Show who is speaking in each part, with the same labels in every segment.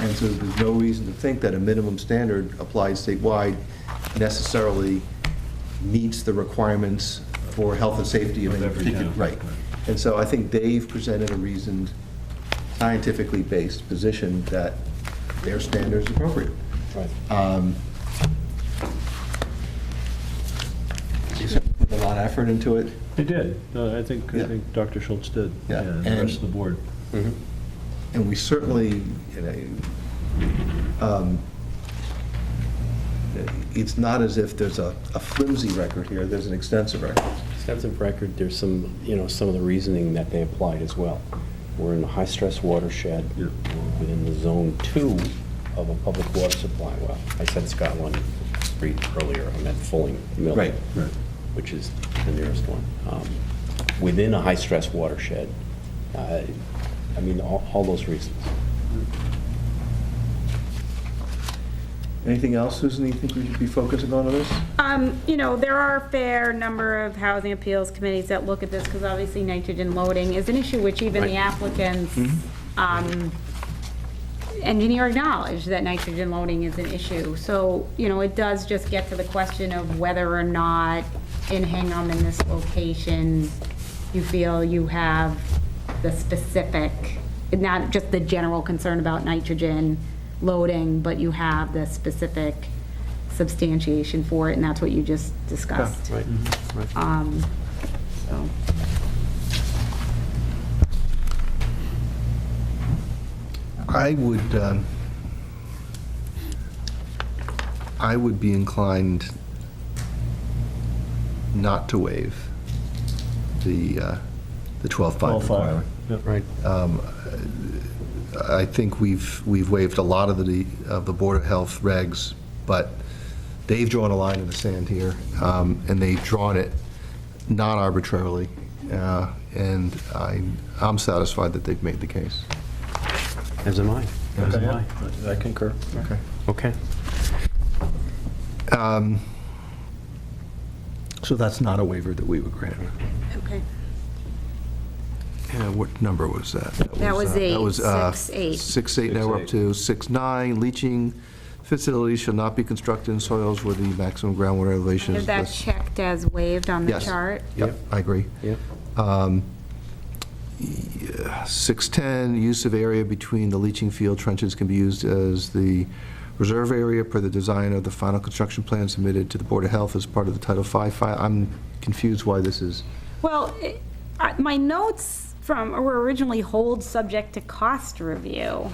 Speaker 1: And so there's no reason to think that a minimum standard applied statewide necessarily meets the requirements for health and safety of
Speaker 2: Of
Speaker 1: any
Speaker 2: every
Speaker 1: particular,
Speaker 2: town.
Speaker 1: right. And so I think they've presented a reasoned, scientifically based position that their standard is appropriate. Um, They certainly Put a lot of effort into it.
Speaker 2: They did. No, I think,
Speaker 1: Yeah.
Speaker 2: I think Dr. Schultz did.
Speaker 1: Yeah,
Speaker 2: And the
Speaker 1: and-
Speaker 2: rest of the board.
Speaker 1: And we certainly, you know, um, it's not as if there's a a flimsy record here, there's an extensive record.
Speaker 3: Extensive record, there's some, you know, some of the reasoning that they applied as well. We're in a high-stress watershed,
Speaker 2: Yeah.
Speaker 3: We're within the zone two of a public water supply well. I said Scotland Street earlier, I meant Fulling Mill.
Speaker 1: Right.
Speaker 2: Right.
Speaker 3: Which is the nearest one. Um, Within a high-stress watershed, uh, I mean, all, all those reasons.
Speaker 1: Anything else, Susan, you think we should be focusing on in this?
Speaker 4: Um, you know, there are a fair number of housing appeals committees that look at this, because obviously nitrogen loading is an issue which even the applicants, um, engineer acknowledged that nitrogen loading is an issue. So, you know, it does just get to the question of whether or not in Hingham in this location, you feel you have the specific, not just the general concern about nitrogen loading, but you have the specific substantiation for it, and that's what you just discussed. Right, right. So,
Speaker 1: I would, um, I would be inclined not to waive the, uh, the 12-5
Speaker 2: All five.
Speaker 1: requirement.
Speaker 2: Yeah.
Speaker 3: Right.
Speaker 1: I think we've, we've waived a lot of the, of the Board of Health regs, but they've drawn a line in the sand here, um, and they've drawn it not arbitrarily, uh, and I, I'm satisfied that they've made the case.
Speaker 3: As am I. As am I.
Speaker 2: Yeah, I concur.
Speaker 1: Okay.
Speaker 3: Okay.
Speaker 1: So that's not a waiver that we would grant.
Speaker 4: okay.
Speaker 1: Yeah, what number was that?
Speaker 4: That was
Speaker 1: uh, that
Speaker 4: eight,
Speaker 1: was, uh,
Speaker 4: six, eight.
Speaker 1: Six, eight, now we're up
Speaker 2: Six,
Speaker 1: to six, nine, leaching facilities shall not be constructed in soils where the maximum groundwater elevation
Speaker 4: Is
Speaker 1: is
Speaker 4: that
Speaker 1: less.
Speaker 4: checked as waived on the
Speaker 1: Yes.
Speaker 4: chart?
Speaker 1: Yep, I agree.
Speaker 3: Yep.
Speaker 1: 610, use of area between the leaching field trenches can be used as the reserve area per the design of the final construction plan submitted to the Board of Health as part of the Title V file. I'm confused why this is,
Speaker 4: Well, it- I- my notes from, were originally hold subject to cost review.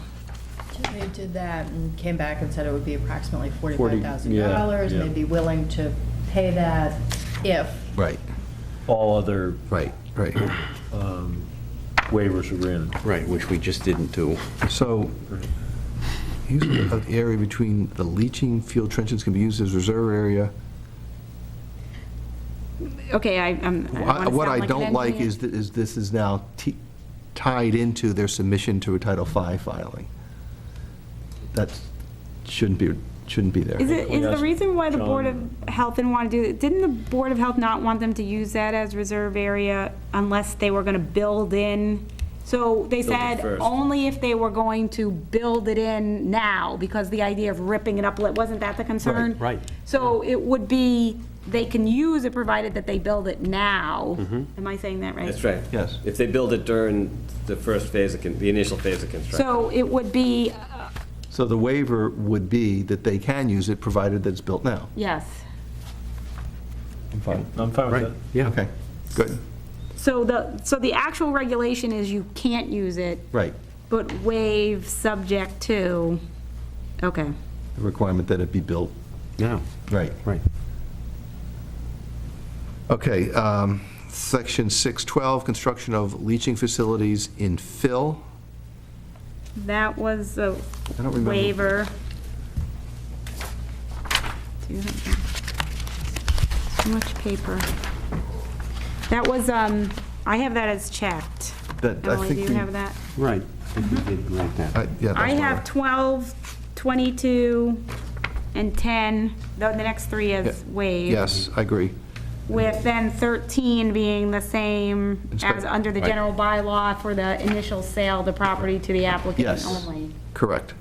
Speaker 5: They did that and came back and said it would be approximately
Speaker 2: Forty,
Speaker 5: forty-five thousand
Speaker 2: yeah,
Speaker 5: dollars,
Speaker 2: yeah.
Speaker 5: and they'd be willing to pay that if.
Speaker 1: right,
Speaker 2: All other um,
Speaker 1: right, right.
Speaker 2: waivers were granted.
Speaker 3: Right, which we just didn't do.
Speaker 1: So, use of the area between the leaching field trenches can be used as reserve area.
Speaker 4: Okay, I, I'm. I don't wanna
Speaker 1: I- What
Speaker 4: sound
Speaker 1: I
Speaker 4: an
Speaker 1: don't like
Speaker 4: engineer.
Speaker 1: is, that- is this is now t- tied into their submission to a Title V filing. That shouldn't be, shouldn't be there.
Speaker 4: Is it, is the
Speaker 2: Yes,
Speaker 4: reason why the Board of
Speaker 2: John.
Speaker 4: Health didn't want to do, it? didn't the Board of Health not want them to use that as reserve area unless they were going to build in? So they
Speaker 2: it
Speaker 4: said
Speaker 2: first.
Speaker 4: only if they were going to build it in now, because the idea of ripping it up, wasn't that the concern?
Speaker 3: Right, right.
Speaker 4: So it would be, they can use it provided that they build it now. Am I saying that right?
Speaker 6: That's right.
Speaker 1: Yes.
Speaker 6: If they build it during the first phase of, con- the initial phase of construction.
Speaker 4: So it would be, uh,
Speaker 1: So the waiver would be that they can use it, provided that it's built now.
Speaker 4: yes.
Speaker 1: I'm fine.
Speaker 2: I'm fine with
Speaker 3: Right,
Speaker 2: that.
Speaker 3: yeah.
Speaker 1: Okay, good,
Speaker 4: So the, so the actual regulation is you can't use it
Speaker 1: right.
Speaker 4: But waive subject to, okay.
Speaker 1: The requirement that it be built,
Speaker 3: No,
Speaker 1: right.
Speaker 3: right.
Speaker 1: Okay, um, section 612, construction of leaching facilities in fill.
Speaker 4: That was a
Speaker 1: I don't remember.
Speaker 4: waiver. Do you have that? Too much paper. That was, um, I have that as checked.
Speaker 1: That- I
Speaker 4: Emily, do
Speaker 1: think
Speaker 4: you
Speaker 1: we-
Speaker 4: have that?
Speaker 3: Right, I think we did write that.
Speaker 1: I- Yeah,
Speaker 4: I
Speaker 1: that's what
Speaker 4: have 12, 22, and 10, the the next three is
Speaker 1: Yeah.
Speaker 4: waived.
Speaker 1: Yes, I agree.
Speaker 4: With then 13 being the same as
Speaker 1: Inspect-
Speaker 4: under the
Speaker 1: right.
Speaker 4: general bylaw for the initial sale of the property to the applicant
Speaker 1: Yes.
Speaker 4: only.
Speaker 1: Correct.